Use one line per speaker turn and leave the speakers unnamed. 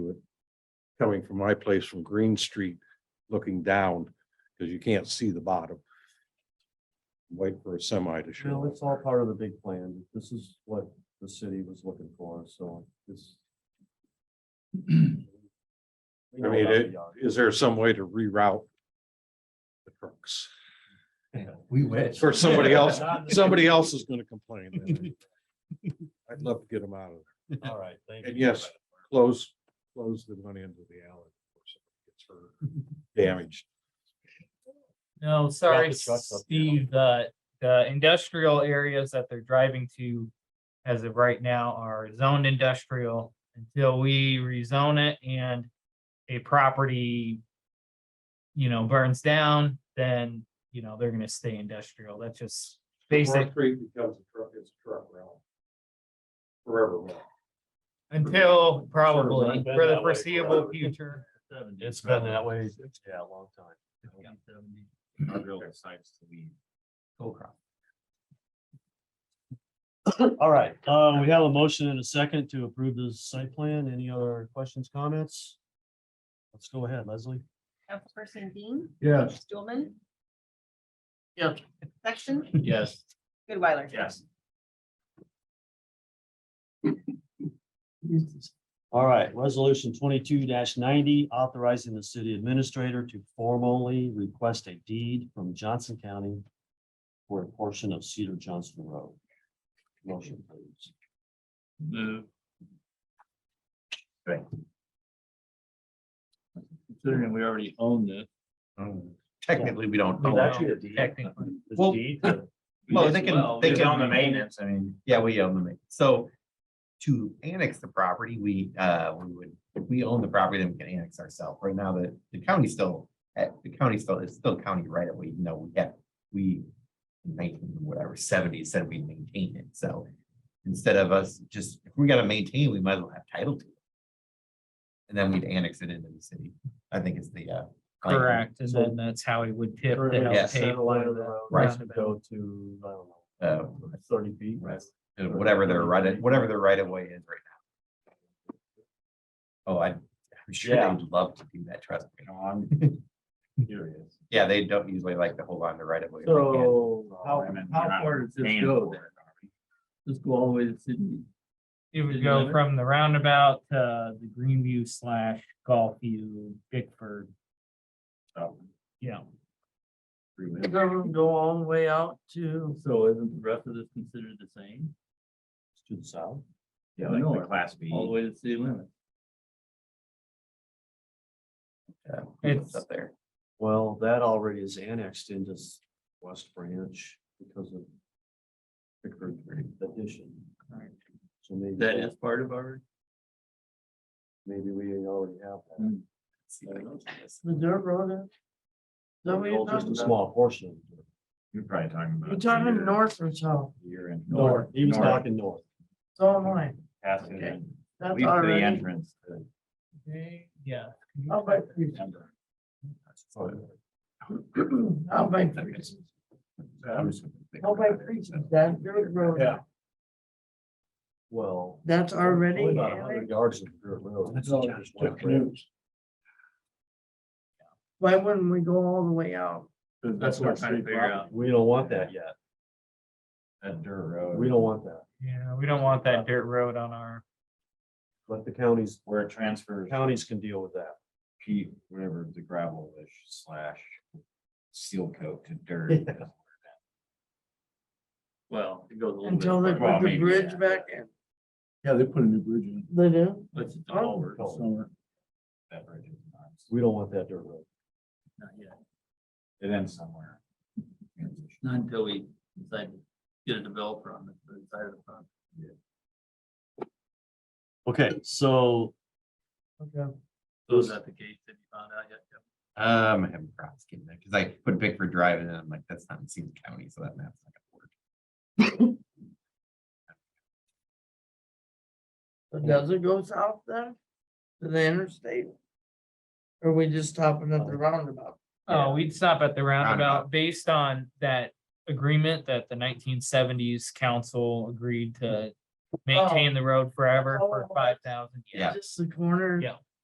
coming from my place from Green Street, looking down, because you can't see the bottom. Wait for a semi to
No,
show. up.
it's all part of the big plan. This is what the city was looking for, so this.
I mean, it- Is there some way to reroute the trucks?
We wish.
Or somebody else, somebody else is gonna complain. then. I'd love to get them out of there.
All right, thank
And yes, close, close the one end of the alley. before somebody gets hurt, Damaged.
No, sorry,
the trucks up there.
Steve, the, the industrial areas that they're driving to as of right now are zoned industrial until we rezone it and a property, you know, burns down, then, you know, they're gonna stay industrial. That's just basic
North Creek becomes a truck, it's a truck route. Forever. route.
until
Sort
probably
of been
for
that
the
way
foreseable
forever.
future.
It's been that way, yeah, a long time. All right, uh, we have a motion and a second to approve the site plan. Any other questions, comments? Let's go ahead, Leslie.
Councilperson Dean,
Yes.
Stulman,
Yeah.
Sexton,
Yes.
Goodweiler.
Yes.
All right, resolution twenty-two ninety, authorizing the city administrator to formally request a deed from Johnson County for a portion of Cedar Johnson Road. Motion, please.
Move. Right. Considering we already own this.
Technically, we don't.
No,
own it.
a deed. Technically.
Well, Well,
Yes,
they can,
uh, well,
they
we
can.
own the
maintenance, I mean. Yeah, we own the maintenance. So to annex the property, we, uh, we would, if we own the property, then we can annex ourselves. Right now, the, the county still, eh, the county still, it's still county right away, even though we have, we in nineteen, whatever, seventy said we maintain it. So instead of us just, if we gotta maintain, we might as well have title to it. And then we'd annex it into the city. I think is the, uh. plan.
Correct, and then that's how it would tip.
Currently,
that
the
Yes.
center
paper
line of the
that
road
Right.
has to Go to, I don't know,
Uh,
thirty feet.
Right. Uh, whatever their right, whatever their right of way is right now. Oh, I, I'm sure
Yeah.
they'd love to do that, trust me.
Curious.
Yeah, they don't usually like to hold on to right of way. if they can.
So how,
I mean,
how
you're not
far does this
paying
go
for
then? Just go all the way to Sydney?
It would
Isn't
go
it?
from the roundabout to the Greenview slash Golfview, Bickford, yeah.
The government go all the way out to, so isn't the rest of this considered the same?
To the south.
Yeah, like the class B. All the way to city limit.
Yeah,
It's-
It's up there.
Well, that already is annexed into s- West Branch because of Pickford addition.
Correct.
So maybe.
That is part of our.
Maybe we already have that.
Hmm.
Let's see if I can do this.
The dirt road. uh,
Well, Just a small portion.
You're probably talking about.
north or south?
You're in.
North, he was talking north.
So am I.
Passing
Okay.
in,
That's
leave to the entrance. to-
Yeah.
I'll make, three- I'll make, three-
I'm just gonna think
I'll
about
make
it.
three to that dirt road.
Yeah. Well.
That's already.
only About a
annexed.
hundred yards of dirt road.
That's all
Just
just
went
took
right.
Why wouldn't we go all the way out?
That's what I'm trying to figure out,
We don't want that yet.
that dirt road.
We don't want that.
Yeah, we don't want that dirt road on our,
Let the counties,
Where it transfers,
counties can deal with that.
Pete, whatever the gravelish slash seal coat to dirt. Well, it goes a
Until they
Well,
put the
maybe,
bridge
yeah.
back in.
Yeah, they put a new bridge in.
They do?
That's
all
over
somewhere.
That bridge is not,
We don't want that dirt road.
not yet. It ends somewhere.
Not until we decide to get a developer on the other side of the front.
Okay, so
Oh,
Okay.
Those at the gate that you found out yet. Kevin?
Um, I haven't crossed getting there, because I put Bickford Drive in, and I'm like, that's not in Seaton County, so that map's not gonna work.
So does it go south then? To the interstate? Or we just stopping at the roundabout?
oh, we'd stop at the roundabout
Roundabout.
based on that agreement that the nineteen seventies council agreed to maintain the road forever for
Oh.
five thousand.
Yeah.
Just the corner?
Yeah.